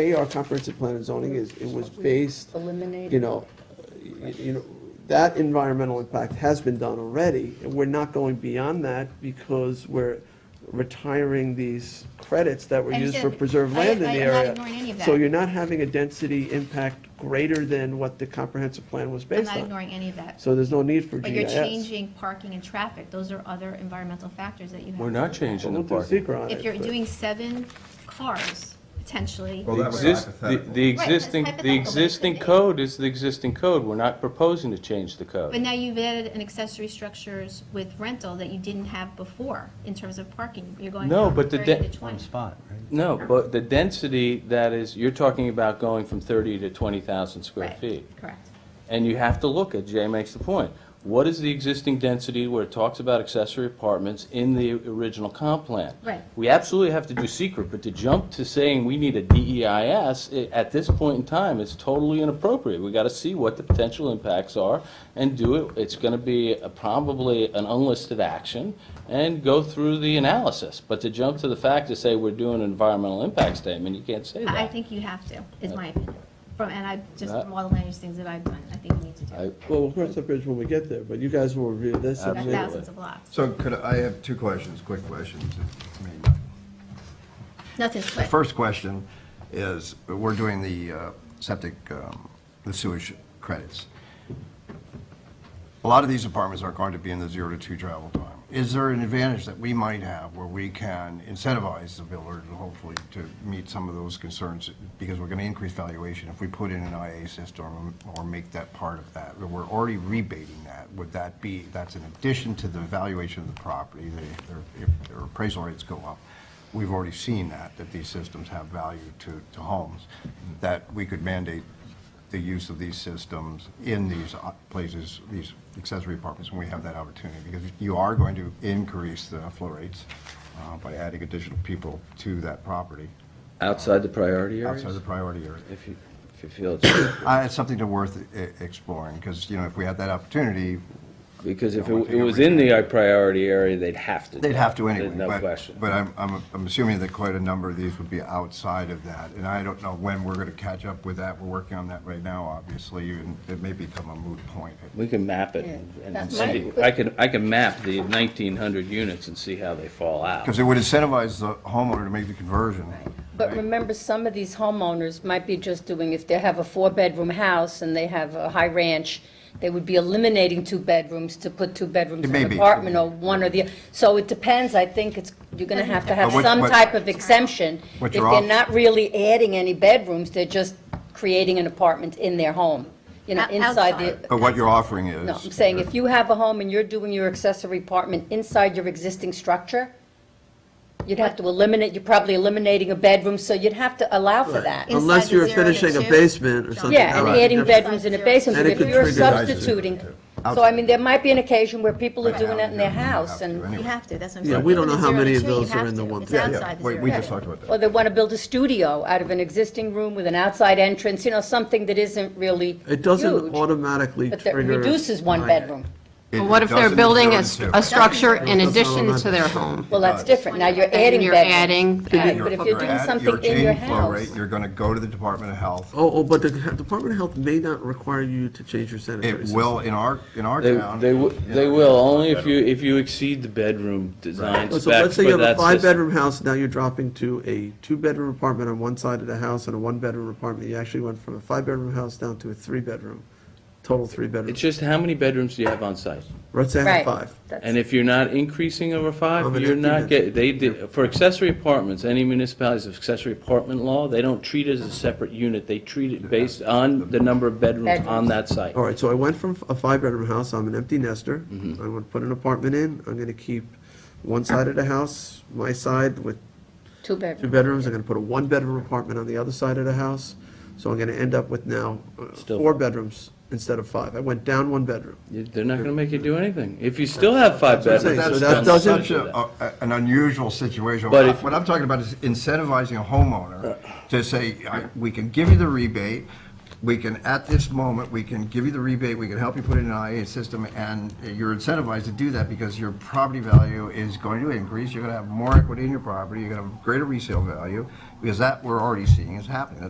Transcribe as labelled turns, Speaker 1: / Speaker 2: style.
Speaker 1: A, our comprehensive plan and zoning is, it was based,
Speaker 2: Eliminate.
Speaker 1: you know, you you know, that environmental impact has been done already, and we're not going beyond that because we're retiring these credits that were used for
Speaker 3: Understood.
Speaker 1: preserved
Speaker 3: I-
Speaker 1: land in
Speaker 3: I-
Speaker 1: the
Speaker 3: I'm not
Speaker 1: area.
Speaker 3: ignoring any of
Speaker 1: So
Speaker 3: that.
Speaker 1: you're not having a density impact greater than what the comprehensive plan was
Speaker 3: I'm
Speaker 1: based
Speaker 3: not
Speaker 1: on.
Speaker 3: ignoring any of that.
Speaker 1: So there's no need for GIS.
Speaker 3: But you're changing parking and traffic, those are other environmental factors that you have.
Speaker 4: We're
Speaker 1: Well,
Speaker 4: not changing the
Speaker 1: we'll do
Speaker 4: parking.
Speaker 1: secret on
Speaker 3: If
Speaker 1: it,
Speaker 3: you're
Speaker 1: but-
Speaker 3: doing seven cars, potentially,
Speaker 4: The
Speaker 5: Well, that was
Speaker 4: exist- the-
Speaker 5: hypothetical.
Speaker 4: The
Speaker 3: Right, that's
Speaker 4: existing,
Speaker 3: hypothetical,
Speaker 4: the
Speaker 3: but it could
Speaker 4: existing
Speaker 3: be.
Speaker 4: code is the existing code. We're not proposing to change the
Speaker 3: but
Speaker 4: code.
Speaker 3: now you've added an accessory structures with rental that you didn't have before in terms of parking. You're going
Speaker 4: No,
Speaker 3: from
Speaker 4: but the
Speaker 3: 30
Speaker 4: de-
Speaker 3: to 20.
Speaker 6: spot, right?
Speaker 4: No, but the density that is, you're talking about going from 30 to 20,000 square
Speaker 3: Right,
Speaker 4: feet.
Speaker 3: Correct.
Speaker 4: And you have to look at, Jay makes the point, what is the existing density where it talks about accessory apartments in the original comp plan?
Speaker 3: Right.
Speaker 4: We absolutely have to do secret, but to jump to saying we need a DEIS, i- at this point in time, is totally inappropriate. We gotta see what the potential impacts are and do it. It's gonna be a- probably an unlisted action and go through the analysis. But to jump to the fact to say we're doing an environmental impact statement, you can't say that.
Speaker 3: I I think you have to, is my opinion. From, and I, just
Speaker 4: That-
Speaker 3: from all the land use things that I've done, I think you need to do.
Speaker 4: I-
Speaker 3: it.
Speaker 1: Well, we'll cross that bridge when we get there, but you guys will review this. and
Speaker 3: There are
Speaker 4: Absolutely.
Speaker 3: thousands of lots.
Speaker 5: So could, I I have two questions, quick questions. I mean,
Speaker 3: Nothing's
Speaker 5: The
Speaker 3: quick.
Speaker 5: first question is, we're doing the uh, septic, um, the sewage credits. A lot of these apartments are going to be in the zero to two travel time. Is there an advantage that we might have where we can incentivize the builder to hopefully to meet some of those concerns? Because we're going to increase valuation if we put in an IA system or make that part of that. We're already rebating that. Would that be, that's in addition to the valuation of the property, the- their- if their appraisal rates go up. We've already seen that, that these systems have value to, to homes, that we could mandate the use of these systems in these o- places, these accessory apartments, when we have that opportunity, because you are going to increase the flow rates uh, by adding additional people to that property
Speaker 4: Outside the priority areas?
Speaker 5: outside the priority area.
Speaker 4: If you, if you feel it's.
Speaker 5: Uh, It's something to worth e- exploring, because, you know, if we had that opportunity,
Speaker 4: Because if
Speaker 5: Yeah, one
Speaker 4: it
Speaker 5: thing
Speaker 4: it
Speaker 5: over
Speaker 4: was in
Speaker 5: here.
Speaker 4: the priority area, they'd have to. do
Speaker 5: they'd have to
Speaker 4: it.
Speaker 5: anyway.
Speaker 4: There's No
Speaker 5: but-
Speaker 4: question.
Speaker 5: But I'm, I'm I'm assuming that quite a number of these would be outside of that, and I don't know when we're going to catch up with that. We're working on that right now, obviously, and it may become a moot point.
Speaker 4: We can map it
Speaker 2: Yeah.
Speaker 4: and- and
Speaker 2: That's
Speaker 4: see.
Speaker 2: right.
Speaker 4: I can, I can map the 1,900 units and see how they fall out.
Speaker 5: Because it would incentivize the homeowner to make the conversion.
Speaker 2: But
Speaker 5: right?
Speaker 2: remember, some of these homeowners might be just doing, if they have a four-bedroom house and they have a high ranch, they would be eliminating two bedrooms to put two bedrooms
Speaker 5: It
Speaker 2: in
Speaker 5: may
Speaker 2: an
Speaker 5: be.
Speaker 2: apartment or one or the, so it depends, I think it's, you're gonna have to have
Speaker 5: But what-
Speaker 2: some
Speaker 5: what-
Speaker 2: type of exemption.
Speaker 5: What
Speaker 2: If
Speaker 5: you're
Speaker 2: they're
Speaker 5: off-
Speaker 2: not really adding any bedrooms, they're just creating an apartment in their home, you know,
Speaker 3: Out-
Speaker 2: inside
Speaker 3: outside.
Speaker 2: the,
Speaker 5: But what you're offering is.
Speaker 2: No, I'm saying if you have a home and you're doing your accessory apartment inside your existing structure, you'd have to eliminate, you're probably eliminating a bedroom, so you'd have to allow for that.
Speaker 3: Inside
Speaker 1: Unless
Speaker 3: the
Speaker 1: you're
Speaker 3: zero to
Speaker 1: finishing a
Speaker 3: two?
Speaker 1: basement or something.
Speaker 2: Yeah, and
Speaker 1: that'll be
Speaker 2: adding
Speaker 1: different.
Speaker 2: bedrooms in a basement,
Speaker 1: And it
Speaker 2: if
Speaker 1: could
Speaker 2: you're
Speaker 1: trigger-
Speaker 2: substituting. So I mean, there might be an occasion where people are doing that in their house and,
Speaker 3: You have to, that's what I'm
Speaker 1: Yeah,
Speaker 3: saying.
Speaker 1: we don't
Speaker 3: From
Speaker 1: know
Speaker 3: the
Speaker 1: how
Speaker 3: zero to
Speaker 1: many of
Speaker 3: two, you
Speaker 1: those are
Speaker 3: have
Speaker 1: in the
Speaker 3: to.
Speaker 1: one
Speaker 3: It's
Speaker 1: family.
Speaker 3: outside the
Speaker 5: We,
Speaker 3: zero
Speaker 5: we
Speaker 3: to
Speaker 5: just
Speaker 3: two.
Speaker 5: talked about
Speaker 2: or
Speaker 5: that.
Speaker 2: they want to build a studio out of an existing room with an outside entrance, you know, something that isn't really
Speaker 1: It doesn't
Speaker 2: huge,
Speaker 1: automatically
Speaker 2: But that
Speaker 1: trigger.
Speaker 2: reduces one
Speaker 1: I-
Speaker 2: bedroom.
Speaker 5: It-
Speaker 7: Well, What
Speaker 5: it
Speaker 7: if they're
Speaker 5: doesn't
Speaker 7: building a,
Speaker 5: refer
Speaker 7: s-
Speaker 5: to-
Speaker 7: a structure in
Speaker 1: That's not
Speaker 7: addition
Speaker 1: allowed.
Speaker 7: to their home?
Speaker 2: Well, that's different, now you're adding
Speaker 7: And you're
Speaker 2: bedrooms.
Speaker 7: adding.
Speaker 2: Right,
Speaker 5: You're-
Speaker 2: but if you're doing
Speaker 5: add-
Speaker 2: something
Speaker 5: you're
Speaker 2: in your
Speaker 5: changing flow
Speaker 2: house-
Speaker 5: rate, You're gonna go to the Department of Health.
Speaker 1: Oh, oh, but the Department of Health may not require you to change your sanitary
Speaker 5: It
Speaker 1: system.
Speaker 5: will, in our, in our
Speaker 4: They,
Speaker 5: town.
Speaker 4: they wi- they will, only if you, if you exceed the bedroom design
Speaker 1: Oh, So
Speaker 4: specs.
Speaker 1: let's say you have
Speaker 4: but
Speaker 1: a
Speaker 4: that's just-
Speaker 1: five-bedroom house, now you're dropping to a two-bedroom apartment on one side of the house and a one-bedroom apartment. You actually went from a five-bedroom house down to a three-bedroom, total three-bedroom.
Speaker 4: It's just how many bedrooms do you have on site?
Speaker 1: Let's say I have
Speaker 2: Right.
Speaker 1: five.
Speaker 2: That's-
Speaker 4: And if you're not increasing over
Speaker 1: Of
Speaker 4: five,
Speaker 1: an
Speaker 4: you're
Speaker 1: empty
Speaker 4: not
Speaker 1: net.
Speaker 4: get, they did, for accessory apartments, any municipalities of accessory apartment law, they don't treat it as a separate unit, they treat it based on the number of bedrooms
Speaker 2: Bedrooms.
Speaker 4: on that site.
Speaker 1: All right, so I went from a five-bedroom house, I'm an empty nester. I'm
Speaker 4: Mm-hmm.
Speaker 1: gonna put an apartment in, I'm gonna keep one side of the house, my side with
Speaker 2: Two
Speaker 1: two
Speaker 2: bedrooms.
Speaker 1: bedrooms, I'm gonna put a one-bedroom apartment on the other side of the house. So I'm gonna end up with now uh,
Speaker 4: Still-
Speaker 1: four bedrooms instead of five. I went down one bedroom.
Speaker 4: You- They're not gonna make you do anything. If you still have five
Speaker 1: That's what I'm
Speaker 4: bedrooms.
Speaker 1: saying, so
Speaker 4: it's
Speaker 1: that
Speaker 4: done
Speaker 1: doesn't-
Speaker 4: such
Speaker 5: Such
Speaker 4: a-
Speaker 5: a, a- uh, an unusual situation.
Speaker 4: But if-
Speaker 5: What I'm talking about is incentivizing a homeowner to say, I- we can give you the rebate, we can, at this moment, we can give you the rebate, we can help you put it in an IA system, and you're incentivized to do that because your property value is going to increase, you're gonna have more equity in your property, you're gonna have greater resale value, because that, we're already seeing is happening.